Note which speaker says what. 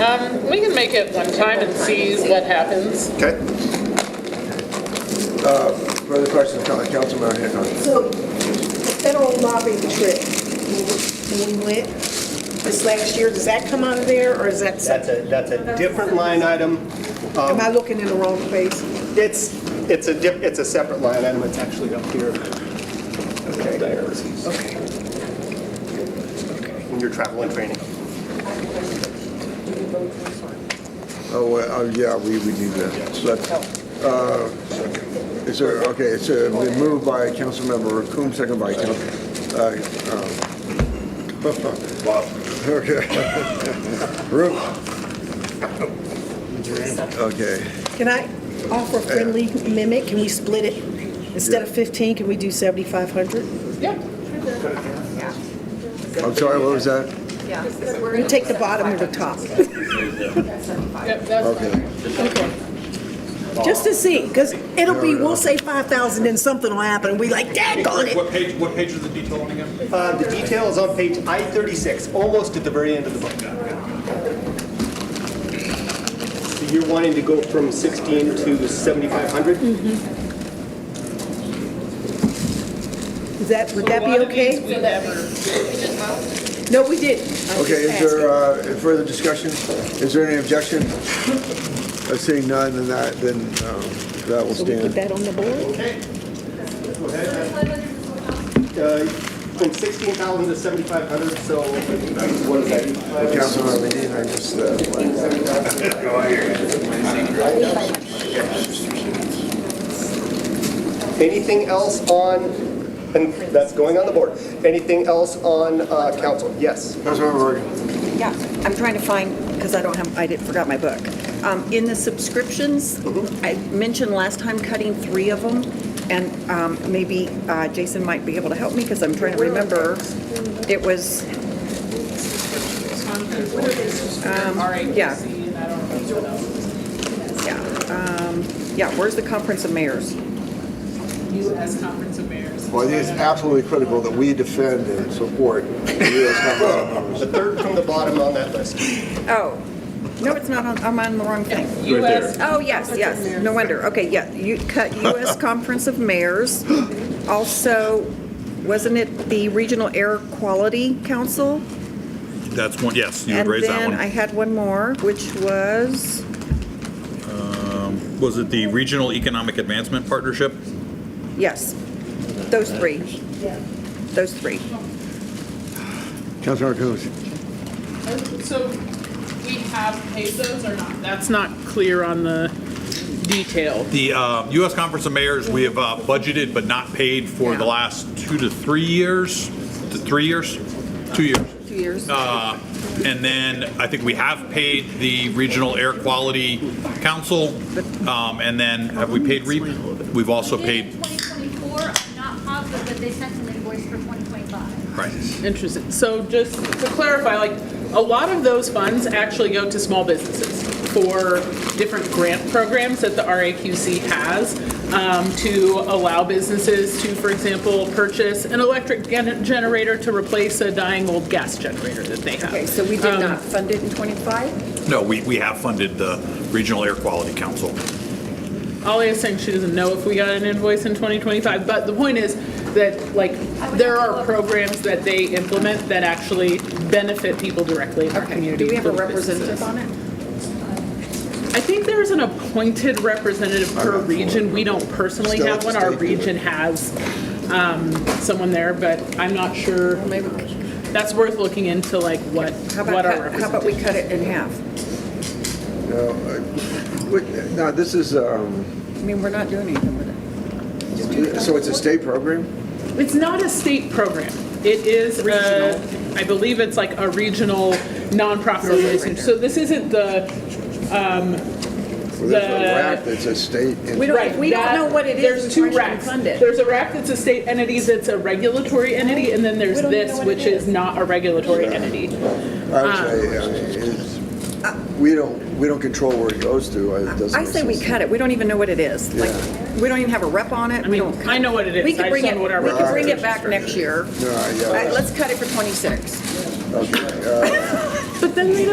Speaker 1: Um, we can make it one time and see what happens.
Speaker 2: Okay. Uh, Further questions, from the council, Mayor Hancock?
Speaker 3: So, the federal lobbying trip, when we went this last year, does that come out of there, or is that,
Speaker 4: That's a, that's a different line item.
Speaker 2: Um,
Speaker 3: am I looking in the wrong place?
Speaker 4: It's, it's a, dif- it's a separate line item, it's actually up here. Okay.
Speaker 3: Okay.
Speaker 4: In your travel and training.
Speaker 2: Oh, well, oh, yeah, we would need that. But, uh, It's a, okay, it's a, been moved by Councilmember Coombs, second by Council. uh, um, Okay. Root. Okay.
Speaker 3: Can I offer a friendly mimic? Can we split it? Instead of 15, can we do 7,500?
Speaker 1: Yeah.
Speaker 2: I'm sorry, what was that?
Speaker 3: We're going to take the bottom and the top,
Speaker 1: Yep, that's
Speaker 2: Okay.
Speaker 1: fine.
Speaker 3: just to see, because it'll be, we'll say 5,000 and something will happen, and we like, dang on it!
Speaker 5: What page, what page is the detail on again?
Speaker 4: Uh, The detail is on page I-36, almost at the very end of the book. So you're wanting to go from 16 to 7,500?
Speaker 3: Is that, would that
Speaker 1: A
Speaker 3: be
Speaker 1: lot of these
Speaker 3: okay?
Speaker 1: we never-
Speaker 3: No, we didn't. I'm
Speaker 2: Okay,
Speaker 3: just
Speaker 2: is
Speaker 3: asking.
Speaker 2: there uh, further discussion? Is there any objection? Uh, Seeing none, then that, then um, that will
Speaker 3: So we
Speaker 2: stand.
Speaker 3: put that on the board?
Speaker 4: Uh, From 16,000 to 7,500, so what is that?
Speaker 2: Councilmember Medina, I just, uh,
Speaker 4: Anything else on, and that's going on the board. Anything else on uh, council? Yes.
Speaker 2: Councilmember Morgan.
Speaker 6: Yeah, I'm trying to find, because I don't have, I did, forgot my book. Um, In the subscriptions, I mentioned last time cutting three of them, and um, maybe uh, Jason might be able to help me, because I'm trying to remember. It was,
Speaker 1: What are these?
Speaker 6: yeah.
Speaker 1: RABC, and I don't know what else.
Speaker 6: yeah, um, yeah, where's the conference of mayors?
Speaker 1: U.S. Conference of Mayors.
Speaker 2: Well, it is absolutely critical that we defend and support the U.S. Constitution.
Speaker 4: The third from the bottom on that list.
Speaker 6: Oh, no, it's not on, I'm on the wrong thing.
Speaker 1: U.S.
Speaker 6: Oh, yes, yes, no wonder, okay, yeah, you cut US Conference of Mayors. Also, wasn't it the Regional Air Quality Council?
Speaker 5: That's one, yes, you would raise that
Speaker 6: And then I
Speaker 5: one.
Speaker 6: had one more, which was,
Speaker 5: Was it the Regional Economic Advancement Partnership?
Speaker 6: yes, those three. Those three.
Speaker 2: Councilmember Coombs.
Speaker 1: So we have paid those or not? That's not clear on the detail.
Speaker 5: The uh, U.S. Conference of Mayors, we have uh, budgeted but not paid for the last two to three years, to three years, two years. Uh,
Speaker 6: Two years.
Speaker 5: And then I think we have paid the Regional Air Quality Council, um, and then have we paid REAP? We've also
Speaker 7: did
Speaker 5: paid,
Speaker 7: 2024, I'm not positive, but they sent an invoice for 2025.
Speaker 5: right.
Speaker 1: Interesting. So just to clarify, like, a lot of those funds actually go to small businesses for different grant programs that the RAQC has um, to allow businesses to, for example, purchase an electric gen- generator to replace a dying old gas generator that they have.
Speaker 6: Okay, so we did not fund it in 25?
Speaker 5: No, we, we have funded the Regional Air Quality Council.
Speaker 1: Ollie is saying she doesn't know if we got an invoice in 2025, but the point is that, like, there are programs that they implement that actually benefit people directly in our
Speaker 6: Okay,
Speaker 1: community.
Speaker 6: do we have a
Speaker 1: little businesses.
Speaker 6: representative on it?
Speaker 1: I think there's an appointed representative per region. We don't personally
Speaker 2: Still
Speaker 1: have
Speaker 2: at
Speaker 1: one.
Speaker 2: the
Speaker 1: Our
Speaker 2: state.
Speaker 1: region has um, someone there, but I'm not sure.
Speaker 6: Maybe,
Speaker 1: That's worth looking into, like, what,
Speaker 6: how
Speaker 1: what
Speaker 6: about,
Speaker 1: our
Speaker 6: cut- how about we
Speaker 1: representative.
Speaker 6: cut it in half?
Speaker 2: No, I- wait, Now, this is, um,
Speaker 6: I mean, we're not doing anything with it.
Speaker 2: so it's a state program?
Speaker 1: It's not a state program. It is a, I believe it's like a regional nonprofit organization. So this isn't the
Speaker 2: Well, there's a
Speaker 1: The-
Speaker 2: raft that's a state.
Speaker 6: We don't-
Speaker 1: Right,
Speaker 6: if we don't
Speaker 1: that-
Speaker 6: know what it is,
Speaker 1: There's
Speaker 6: we
Speaker 1: two
Speaker 6: probably shouldn't
Speaker 1: racks.
Speaker 6: fund it.
Speaker 1: There's a rack that's a state entity that's a regulatory entity, and then there's
Speaker 6: We don't even
Speaker 1: this,
Speaker 6: know what it
Speaker 1: which is
Speaker 6: is.
Speaker 1: not a regulatory entity.
Speaker 2: I
Speaker 6: uh,
Speaker 2: would say, I mean, uh, it's- we don't, we don't control where it goes to. It doesn't
Speaker 6: I say we
Speaker 2: exist.
Speaker 6: cut it, we don't even know what it is. Like, we don't even have a rep on it,
Speaker 1: I
Speaker 6: we
Speaker 1: mean,
Speaker 6: don't.
Speaker 1: I know what it is. I
Speaker 6: We could
Speaker 1: just
Speaker 6: bring
Speaker 1: don't
Speaker 6: it,
Speaker 1: know what our
Speaker 6: we could bring
Speaker 1: representative
Speaker 6: it back next year.
Speaker 2: No, yeah.
Speaker 6: All right, let's cut it for 26.
Speaker 2: Okay.
Speaker 1: But then they don't